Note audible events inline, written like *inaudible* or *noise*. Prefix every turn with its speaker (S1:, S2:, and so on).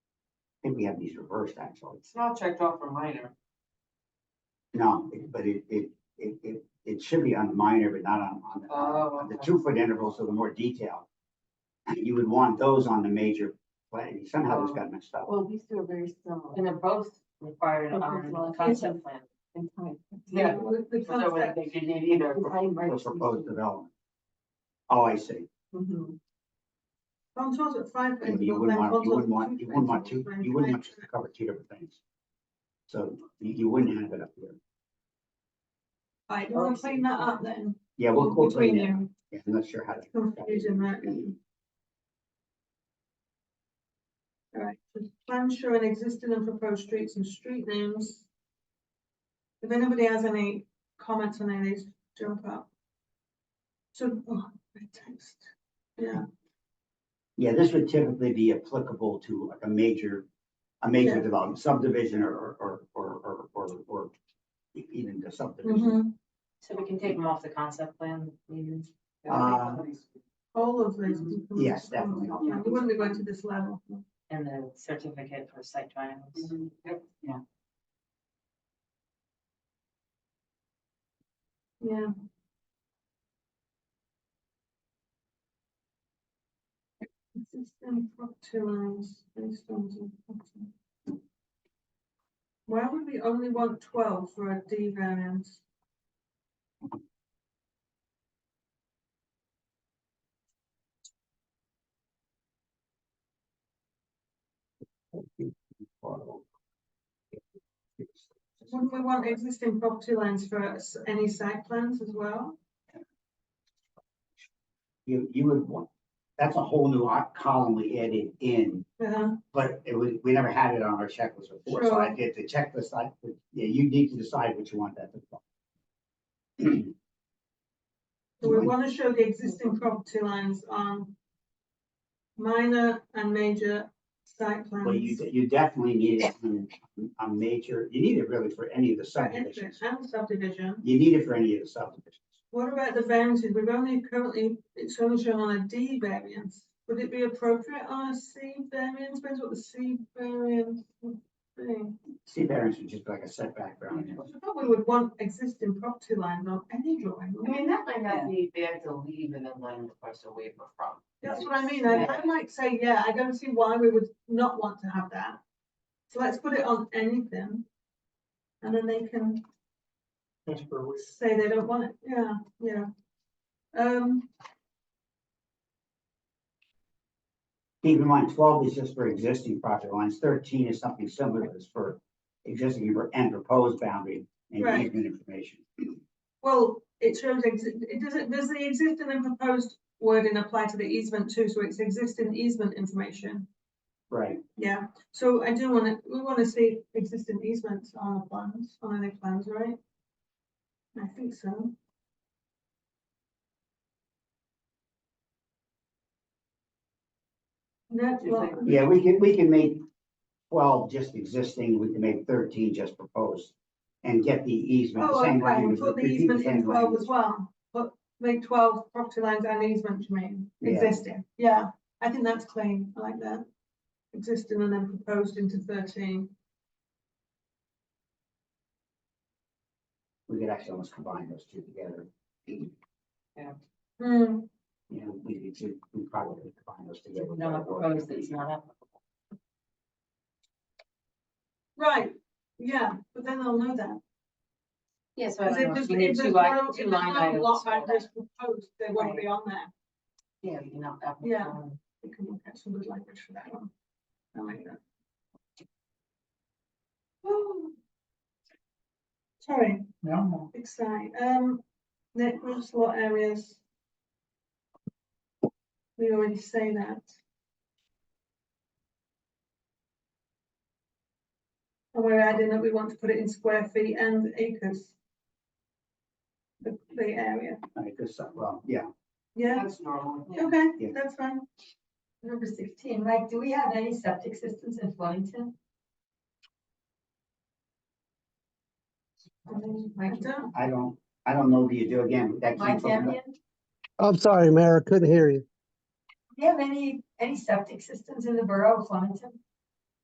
S1: think we have these reversed actually.
S2: It's not checked off for minor.
S1: No, it- but it, it, it, it, it should be on the minor, but not on, on the,
S2: Oh,
S1: on the
S2: okay.
S1: two foot intervals, so the more detail. And you would want those on the major, plan. somehow this got mixed up.
S3: Oh,
S4: Well, these two are very similar.
S3: And they're both required
S4: Okay,
S3: on
S4: well,
S3: the concept plan.
S4: in time.
S2: Yeah.
S4: The- The
S2: So I wouldn't
S4: concept.
S2: think you need either.
S4: behind
S1: For
S4: March
S1: proposed
S4: 16.
S1: development. Oh, I see.
S4: Mhm.
S5: I'm told Mm-hmm. at five.
S1: And you wouldn't want, you wouldn't want, you wouldn't want two, you wouldn't want to cover two different things. So you, you wouldn't have it up here.
S5: I, we'll clean that up then,
S1: Yeah, we'll, we'll clean
S5: between
S1: it.
S5: you,
S1: Yeah, I'm not sure how to.
S5: confusing that. Alright, so plans showing existing and proposed streets and street names. If anybody has any comments on any of these, jump up. So, oh, my text, yeah,
S1: Yeah, this would typically be applicable to like a major, a major
S5: Yeah.
S1: development subdivision or, or, or, or, or, or e- even the subdivision.
S5: mhm,
S3: So we can take them off the concept plan, maybe.
S1: Uh,
S5: all of these.
S1: Mm-hmm. Yes, definitely.
S5: Yeah, we wouldn't be going to this level.
S3: And the certificate for site triangles.
S2: Mhm, yep.
S5: Yeah. Existing property lines based on the property. Why would we only want twelve for a D variance? Wouldn't we want existing property lines for s- any site plans as well?
S1: You, you would want, that's a whole new o- column we added in,
S5: Yeah,
S1: but it was, we never had it on our checklist before. So I did the checklist, I, yeah, you need to decide what you want that to. be.
S5: so we want to show the existing property lines on minor and major site
S1: Well, you,
S5: plans.
S1: you definitely need it on a major, you need it really for any of the
S5: For
S1: subdivisions.
S5: entrance And subdivision.
S1: You need it for any of the subdivisions.
S5: What about the variances? We've only currently, it's only shown on a D variance. Would it be appropriate on a C variance? Depends what the C variance would be.
S1: C variance would just be like a setback variance.
S5: I thought we would want existing property lines on any drawing.
S2: I mean, that might not be bad to leave and then let them request a waiver from.
S5: That's what I mean. I, I might say, yeah, I don't see why we would not want to have that. So let's put it on anything. And then they can
S6: That's where we,
S5: say they don't want it. Yeah, yeah. Um,
S1: Keep in mind, twelve is just for existing project lines, thirteen is something similar to this for existing and proposed boundary and
S5: Right.
S1: easement information.
S5: Well, it shows, exi- it does, it does the existing and proposed wording apply to the easement too, so it's existing easement information.
S1: Right,
S5: Yeah, so I do wanna, we wanna see existing easements on our plans, on any plans, right? I think so. No,
S2: Do you
S5: well,
S2: think-
S1: yeah, we can, we can make twelve just existing, we can make thirteen just proposed and get the easement, the
S5: oh,
S1: same
S5: okay,
S1: language.
S5: put the
S1: repeat
S5: easement
S1: same
S5: in twelve
S1: language.
S5: as well, but make twelve property lines and easement, you mean,
S1: Yeah.
S5: existing, yeah, I think that's clean, I like that. Existing and then proposed into thirteen.
S1: We could actually almost combine those two together.
S5: Hmm,
S1: You know, we could, do- we probably could combine those together.
S3: No, I propose that it's not applicable.
S5: right, yeah, but then they'll know that.
S3: Yeah, so I
S5: Because
S3: don't
S5: if
S3: know,
S5: there's,
S3: if we need
S5: if
S3: two
S5: there's
S3: line,
S5: no, if
S3: two
S5: there's
S3: line
S5: no
S3: items.
S5: lot
S3: for
S5: boundary
S3: that.
S5: proposed, they won't
S3: Right.
S5: be on there,
S3: Yeah, you can opt out.
S5: Yeah. we can look at some good language for that one. I like that. *sighs* Oh. Sorry.
S3: No.
S5: Big sigh. Um, net gross lot areas. We already say that. And we're adding that we want to put it in square feet and acres. The, the area,
S1: All right, good stuff. well, yeah,
S5: yeah,
S2: That's normal.
S3: Yeah.
S5: okay,
S1: Yeah.
S5: that's fine.
S4: Number sixteen, Mike, do we have any septic systems in Flemington?
S5: I
S4: Mike,
S5: don't,
S1: I don't, I don't know what you do again, that came
S4: Mike
S1: from,
S4: Campion,
S1: the-
S4: do
S7: I'm sorry, Mayor, I couldn't hear you.
S4: we have any, any septic systems in the borough of Flemington?